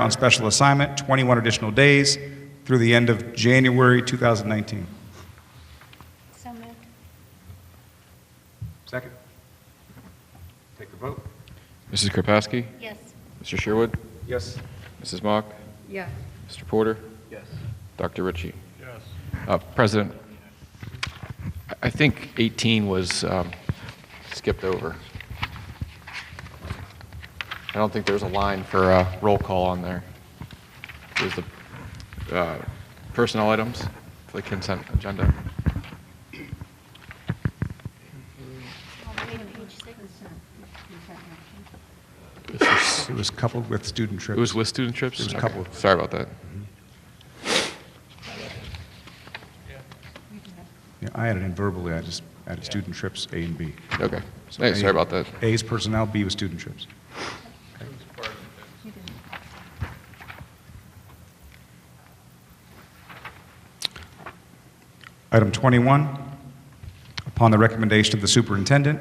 on special assignment, 21 additional days through the end of January 2019. So moved. Second. Take the vote. Mrs. Kropaski? Yes. Mr. Sherwood? Yes. Mrs. Mock? yes, Mr. Porter? Yes. Dr. Ritchie? Yes. President, I- I think 18 was um, skipped over. I don't think there's a line for uh, roll call on there. There's the uh, personnel items for the consent agenda. It was coupled with student It trips. was with student trips? There was a Okay. couple. Sorry about that. Yeah, I added in verbally, I just added student trips, A and B. Okay. So Hey, A- Sorry about that. A is personnel, B was student trips. Item 21, upon the recommendation of the superintendent,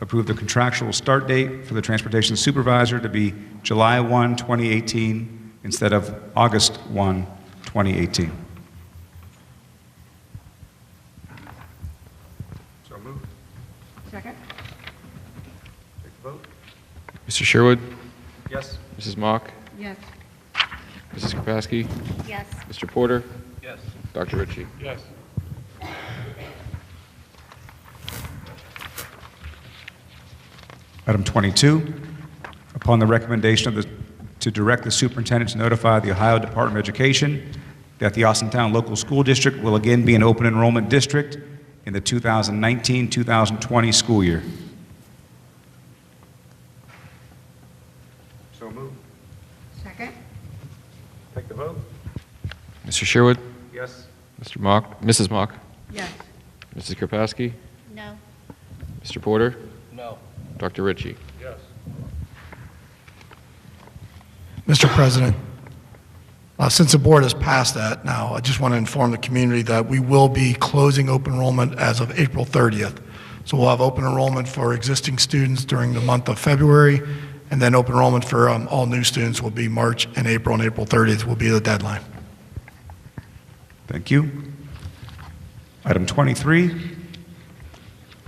approve the contractual start date for the transportation supervisor to be July 1, 2018, instead of August 1, 2018. So moved. second, Take the vote. Mr. Sherwood? Yes. Mrs. Mock? yes, Mrs. Kropaski? Yes. Mr. Porter? Yes. Dr. Ritchie? Yes. Item 22, upon the recommendation of the, to direct the superintendent to notify the Ohio Department of Education that the Austintown Local School District will again be an open enrollment district in the 2019-2020 school year. So moved. second, Take the vote. Mr. Sherwood? Yes. Mr. Mock? Mrs. Mock? yes, Mrs. Kropaski? No. Mr. Porter? No. Dr. Ritchie? Yes. Mr. President, uh, since the board has passed that now, I just want to inform the community that we will be closing open enrollment as of April 30th. So we'll have open enrollment for existing students during the month of February, and then open enrollment for um, all new students will be March and April, and April 30th will be the deadline. Thank you. Item 23,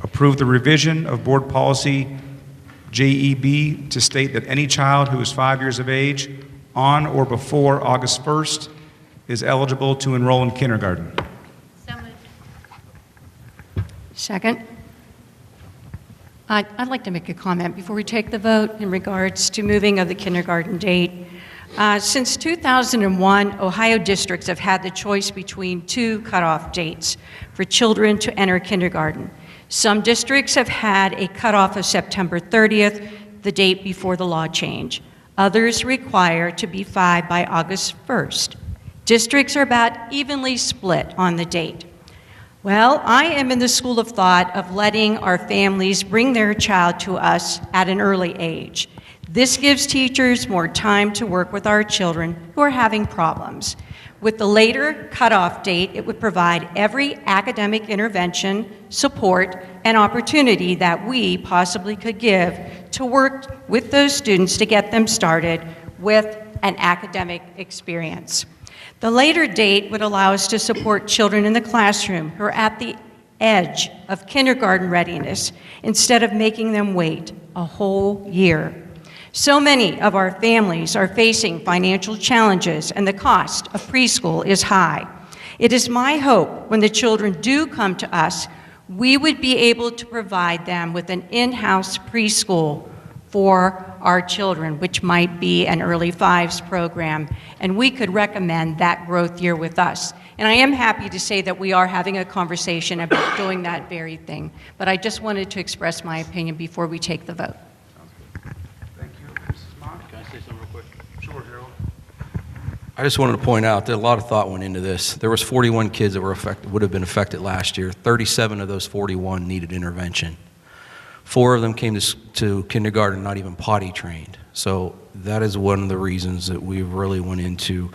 approve the revision of Board Policy JEB to state that any child who is five years of age on or before August 1st is eligible to enroll in kindergarten. So moved. Second. I- I'd like to make a comment before we take the vote in regards to moving of the kindergarten date. Uh, Since 2001, Ohio districts have had the choice between two cutoff dates for children to enter kindergarten. Some districts have had a cutoff of September 30th, the date before the law change. Others require to be five by August 1st. Districts are about evenly split on the date. Well, I am in the school of thought of letting our families bring their child to us at an early age. This gives teachers more time to work with our children who are having problems. With the later cutoff date, it would provide every academic intervention, support, and opportunity that we possibly could give to work with those students to get them started with an academic experience. The later date would allow us to support children in the classroom who are at the edge of kindergarten readiness instead of making them wait a whole year. So many of our families are facing financial challenges, and the cost of preschool is high. It is my hope when the children do come to us, we would be able to provide them with an in house preschool for our children, which might be an early fives program, and we could recommend that growth year with us. And I am happy to say that we are having a conversation about doing that very thing, but I just wanted to express my opinion before we take the vote. Thank you, Mrs. Mock. Can I say something real quick? Sure, Harold. I just wanted to point out that a lot of thought went into this. There was 41 kids that were affected, would have been affected last year. 37 of those 41 needed intervention. Four of them came to, s- to kindergarten not even potty trained. So that is one of the reasons that we really went into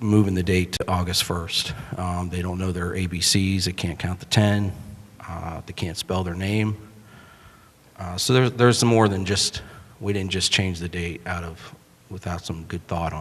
moving the date to August 1st. Um, they don't know their ABCs. They can't count the 10. Uh, they can't spell their name. Uh, so there's there's more than just we didn't just change the date out of without some good thought on.